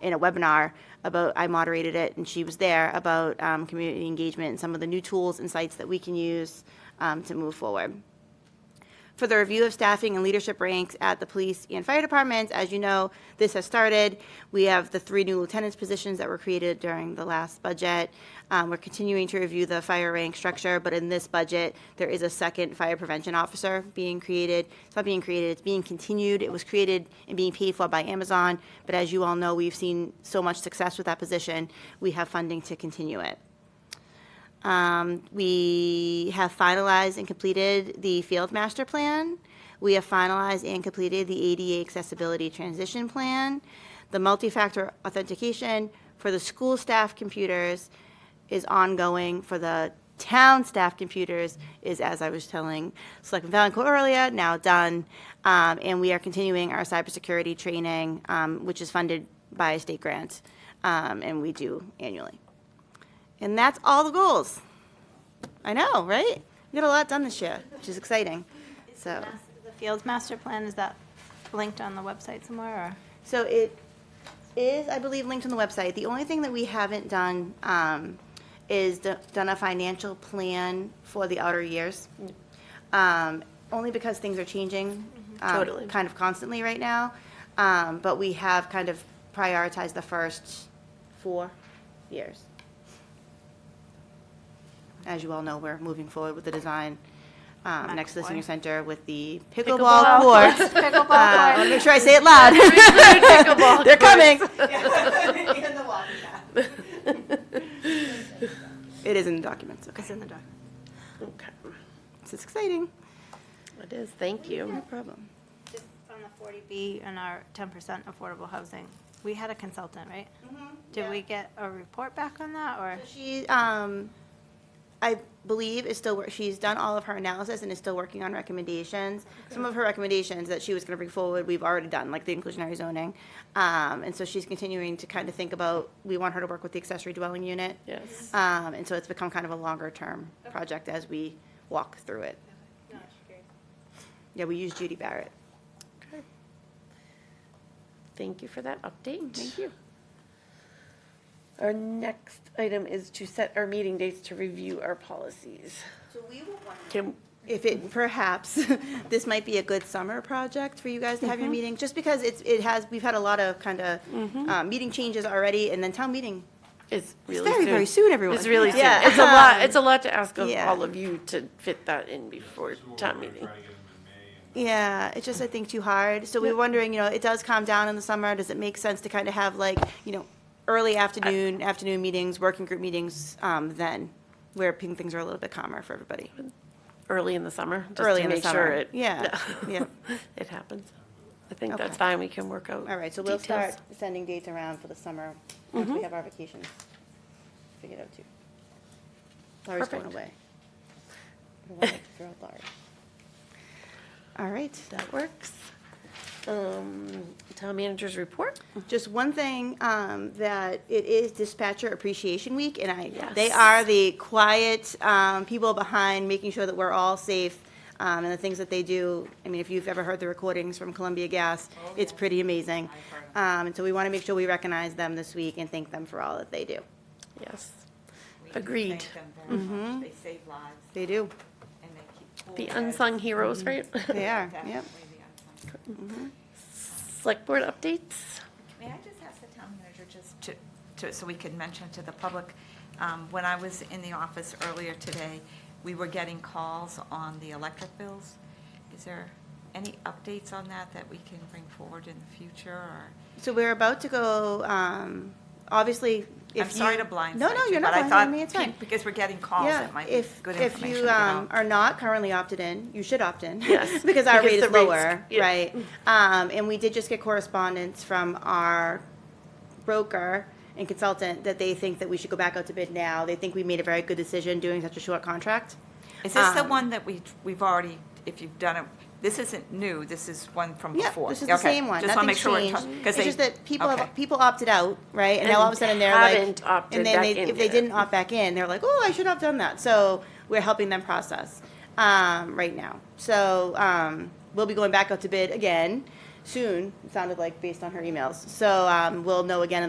in a webinar about, I moderated it, and she was there, about um, community engagement and some of the new tools and sites that we can use um, to move forward for the review of staffing and leadership ranks at the police and fire departments. As you know, this has started. We have the three new lieutenants positions that were created during the last budget. Um, we're continuing to review the fire rank structure, but in this budget, there is a second fire prevention officer being created. It's not being created, it's being continued. It was created and being paid for by Amazon, but as you all know, we've seen so much success with that position. We have funding to continue it. Um, we have finalized and completed the field master plan. We have finalized and completed the ADA accessibility transition plan. The multi-factor authentication for the school staff computers is ongoing. For the town staff computers is, as I was telling Selectman Valencourt earlier, now done. Um, and we are continuing our cybersecurity training, um, which is funded by a state grant, um, and we do annually. And that's all the goals. I know, right? We got a lot done this year, which is exciting. So, The Fields Master Plan, is that linked on the website somewhere, so it is, I believe, linked on the website. The only thing that we haven't done um, is d- done a financial plan for the outer years. Um, only because things are changing um, Totally. kind of constantly right now. Um, but we have kind of prioritized the first four years. As you all know, we're moving forward with the design um, next to the senior McAvoy. center with the Pickleball pickleball courts. or? Pickleball Uh, court. let me make sure I say it loud. They're coming. It is in the documents. Okay, It's in the doc. Okay, this is exciting. it is, thank No you. problem. Just on the 40B and our 10% affordable housing, we had a consultant, right? Did we get a report back on that, or? She, um, I believe is still, wor- she's done all of her analysis and is still working on recommendations. Some of her recommendations that she was gonna bring forward, we've already done, like the inclusionary zoning. Um, and so she's continuing to kind of think about, we want her to work with the accessory dwelling unit. Yes. Um, and so it's become kind of a longer-term project as we walk through it. Yeah, we use Judy Barrett. Okay. Thank you for that update. Thank you. Our next item is to set our meeting dates to review our policies. So we will wonder Can, if it, perhaps, this might be a good summer project for you guys to have your meeting, just because it's, it has, we've had a lot of kind of, uh, meeting changes already, and then town meeting. it's really soon. very, very soon, everyone. It's really soon. Yeah. It's a lot, it's a lot to ask of Yeah. all of you to fit that in before town meeting. Try to get them in May and Yeah, it's just, I think, too hard. So we were wondering, you know, it does calm down in the summer, does it make sense to kind of have like, you know, early afternoon, afternoon meetings, working group meetings, um, then, where ping- things are a little bit calmer for everybody. early in the summer, just Early to in the make summer. sure it. Yeah, yeah. It happens. I think Okay. that's fine, we can work out. Um, All right, so we'll details. Mm-hmm. start sending dates around for the summer, once we have our vacations figured out too. Laurie's going Perfect. away. I don't wanna throw out Laurie. All right. That works. Um, Town managers report? Just one thing, um, that it is dispatcher appreciation week, and I, they Yes. are the quiet, um, people behind making sure that we're all safe, um, and the things that they do. I mean, if you've ever heard the recordings from Columbia Gas, Oh, it's pretty amazing. Um, and so we want to make sure we recognize them this week and thank them for all that they do. Yes. We thank Agreed. them very Mm-hmm. much. They save lives They do. and they keep cool The heads. unsung heroes, right? They are, yep. Definitely the unsung. Select board updates? May I just ask the town manager just to, to, so we can mention to the public, um, when I was in the office earlier today, we were getting calls on the electric bills. Is there any updates on that that we can bring forward in the future or? So we're about to go, um, obviously, if I'm sorry you- to blindside you, No, no, you're not but I thought blindsiding me, it's pe- fine. Because we're getting calls, Yeah, it might be if, good if information to you get um, out. are not currently opted in, you should opt in. Yes, Because our rate because is the rates- lower, yeah. right? Um, and we did just get correspondence from our broker and consultant that they think that we should go back out to bid now. They think we made a very good decision doing such a short contract. Is this the um, one that we, we've already, if you've done it, this isn't new, this is one from Yeah, before? this is the Okay, same one. Just want to Nothing's make sure. we're changed. talking- 'cause It's they- just that people have, okay. people opted out, right? And now all of a And sudden they're like. haven't opted and then back they- in If they yet. didn't opt back in, they're like, oh, I should have done that. So we're helping them process, um, right now. So, um, we'll be going back out to bid again soon, it sounded like, based on her emails. So, um, we'll know again in the